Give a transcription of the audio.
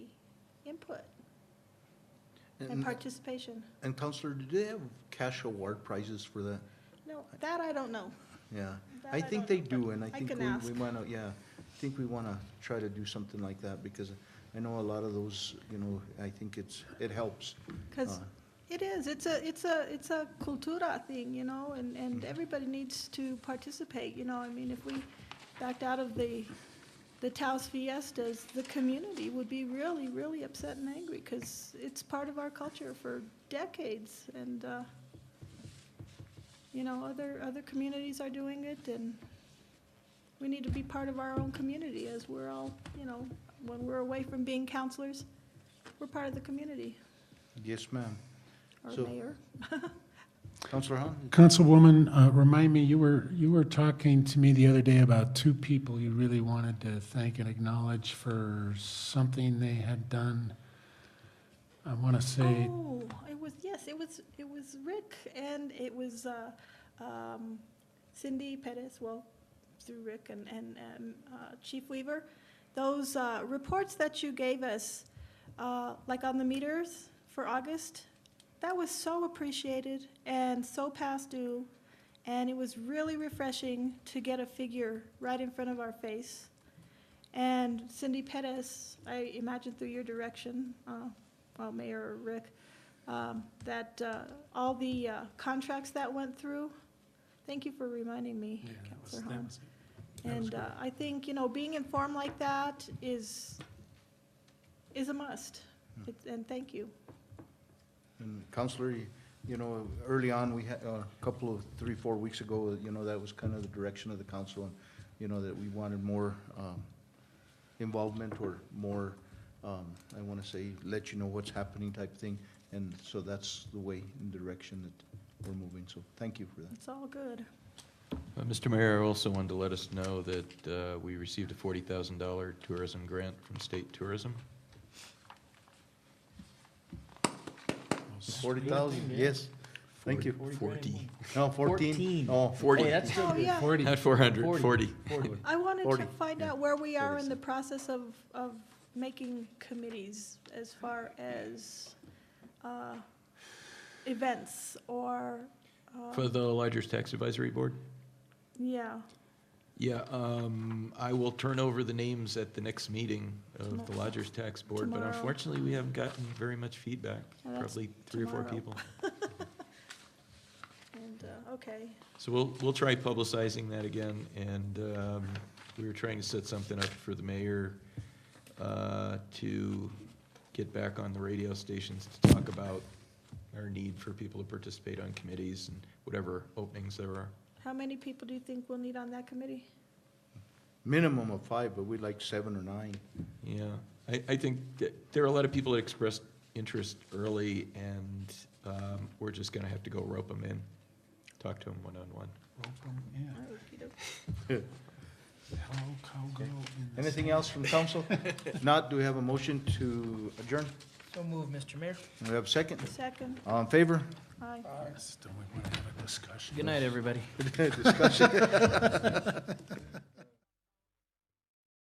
and participation. And Counselor, did they have cash award prizes for that? No, that I don't know. Yeah, That I I don't think they know, but do, and I I think can we, ask. we wanna, yeah, I think we wanna try to do something like that, because I know a lot of those, you know, I think it's, it helps. 'Cause Uh, It is, it's a, it's a, it's a cultura thing, you know, and, and everybody needs to participate, you know, I mean, if we backed out of the, the Taos fiestas, the community would be really, really upset and angry, because it's part of our culture for decades, and, uh, you know, other, other communities are doing it, and we need to be part of our own community as we're all, you know, when we're away from being counselors, we're part of the community, Yes, ma'am. or So- mayor. Counselor Hahn? Councilwoman, uh, remind me, you were, you were talking to me the other day about two people you really wanted to thank and acknowledge for something they had done. I want to say, Oh, it was, yes, it was, it was Rick and it was uh, um, Cindy Pettis, well, through Rick and, and um, uh, Chief Weaver. Those uh, reports that you gave us, uh, like on the meters for August, that was so appreciated and so past due. And it was really refreshing to get a figure right in front of our face. And Cindy Pettis, I imagine through your direction, uh, well, Mayor Rick, um, that uh, all the uh, contracts that went through, thank you for reminding me, yeah, that was, Counselor that Hahn. was, that was And great. uh, I think, you know, being informed like that is, is a must. Hmm. It's- And thank you. And Counselor, you- you know, early on, we had, uh, a couple of, three, four weeks ago, you know, that was kind of the direction of the council, and, you know, that we wanted more um, involvement or more, um, I want to say, let you know what's happening type thing. And so that's the way and direction that we're moving, so thank you for that. It's all good. Uh, Mr. Mayor, I also wanted to let us know that uh, we received a $40,000 tourism grant from state tourism. Forty thousand, yes, thank you. Forty. No, fourteen, oh, Forty. Hey, that's still Oh, good. yeah. Forty. Not 400, Forty. 40. Forty. I wanted to Forty, find yeah. out where we are in the Forty-seven. process of, of making committees as far as uh, events or, uh, For the Lodgers Tax Advisory Board? yeah. Yeah, um, I will turn over the names at the next meeting of the Tomorrow. Lodgers Tax Board, but Tomorrow. unfortunately, we haven't gotten very much feedback, Yeah, that's probably three or four tomorrow. people. And, uh, okay, So we'll, we'll try publicizing that again, and um, we were trying to set something up for the mayor uh, to get back on the radio stations to talk about our need for people to participate on committees and whatever openings there are. how many people do you think we'll need on that committee? Minimum of five, but we'd like seven or nine. Yeah, I, I think that there are a lot of people that expressed interest early, and um, we're just gonna have to go rope them in, talk to them one-on-one. Yeah, Okey-doke. how, how go in the Anything else from council? Not, do we have a motion to adjourn? So move, Mr. Mayor. Do we have a second? Second, All in favor? aye. past? Don't we want to have a discussion? Good night, everybody. Discussion.